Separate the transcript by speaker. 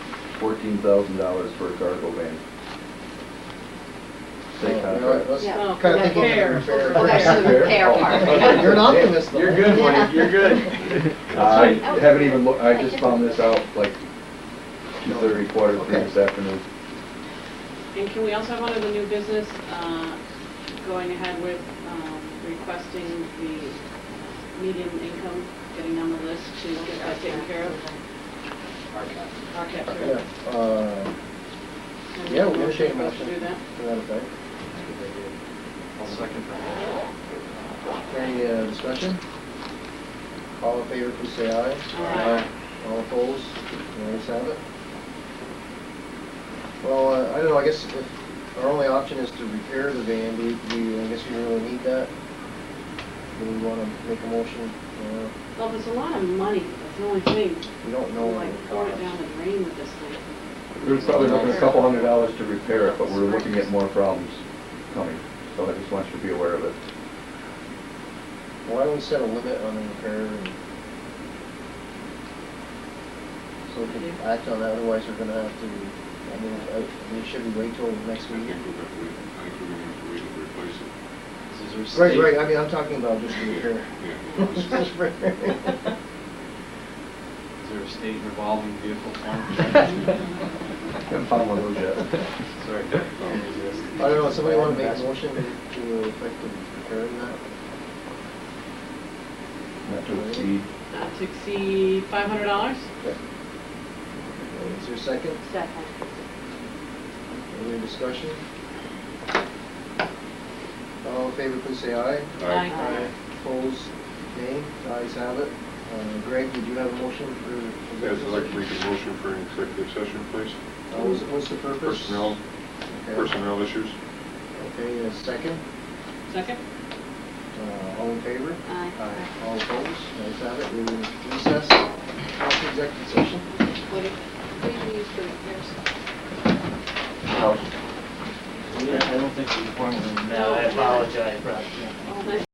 Speaker 1: fourteen thousand dollars for a cargo van. State contract.
Speaker 2: Yeah.
Speaker 3: Kind of thinking
Speaker 2: Fair.
Speaker 3: of fair.
Speaker 4: Oh,
Speaker 2: Okay, so the repair part.
Speaker 3: You're an optimist, though.
Speaker 4: You're good, Mike, you're good.
Speaker 1: I haven't even, loo- I just found this out like two thirty, quarter to three
Speaker 3: Okay.
Speaker 1: this afternoon.
Speaker 2: And can we also have one of the new business, uh, going ahead with um, requesting the median income, getting on the list to get that taken care of? Our cap
Speaker 3: Yeah,
Speaker 2: period.
Speaker 3: uh, yeah, we're gonna shake
Speaker 2: Motion to do that?
Speaker 3: to that effect.
Speaker 4: I'll second that.
Speaker 3: Any uh, discussion? All in favor, please say aye.
Speaker 2: Aye.
Speaker 3: All opposed? The ayes have it. Well, uh, I don't know, I guess if our only option is to repair the van, do we- do we, I guess we really need that? Do we want to make a motion? Uh,
Speaker 2: Well, there's a lot of money, that's the only thing.
Speaker 3: We don't know what
Speaker 2: Like
Speaker 3: it
Speaker 2: pouring it
Speaker 3: costs.
Speaker 2: down the drain with this thing.
Speaker 1: We're probably looking at a couple hundred dollars to repair it, but we're looking at more problems coming, so I just want you to be aware of it.
Speaker 3: Why don't we set a limit on the repair and so we can act on that, otherwise we're gonna have to, I mean, I mean, should we wait till next
Speaker 5: I think
Speaker 3: week?
Speaker 5: we're gonna have to wait, I think we're gonna have to wait and replace it.
Speaker 4: Is there
Speaker 3: Right, right, I
Speaker 4: state-
Speaker 3: mean, I'm talking about just the repair.
Speaker 5: Yeah, well, it's-
Speaker 3: Just repair.
Speaker 4: Is there a state revolving vehicle fund?
Speaker 1: Haven't found one of those yet.
Speaker 4: Sorry, that don't exist.
Speaker 3: I don't know, somebody wanna make a motion to affect the repair of that?
Speaker 1: Not to exceed.
Speaker 2: Not to exceed five Uh, hundred dollars?
Speaker 3: Is there a second?
Speaker 2: Second.
Speaker 3: Any discussion? All in favor, please say aye.
Speaker 2: Aye.
Speaker 3: Opposed, nay, the ayes have it. Uh, Greg, did you have a motion for? for
Speaker 5: Guys, I'd like to
Speaker 3: business?
Speaker 5: make a motion for an executive session, please.
Speaker 3: Uh, What's, what's the purpose?
Speaker 5: Personnel,
Speaker 3: Okay.
Speaker 5: personnel issues.
Speaker 3: Okay, a second.
Speaker 2: Second?
Speaker 3: Uh, all in favor?
Speaker 2: Aye.
Speaker 3: All opposed? Ayes have it. We're in recess, council executive session.
Speaker 2: What if, what do you use for repairs?
Speaker 1: House.
Speaker 6: Yeah, I don't think we formally,
Speaker 2: No.
Speaker 6: no, I apologize, Rob.
Speaker 2: Oh, that's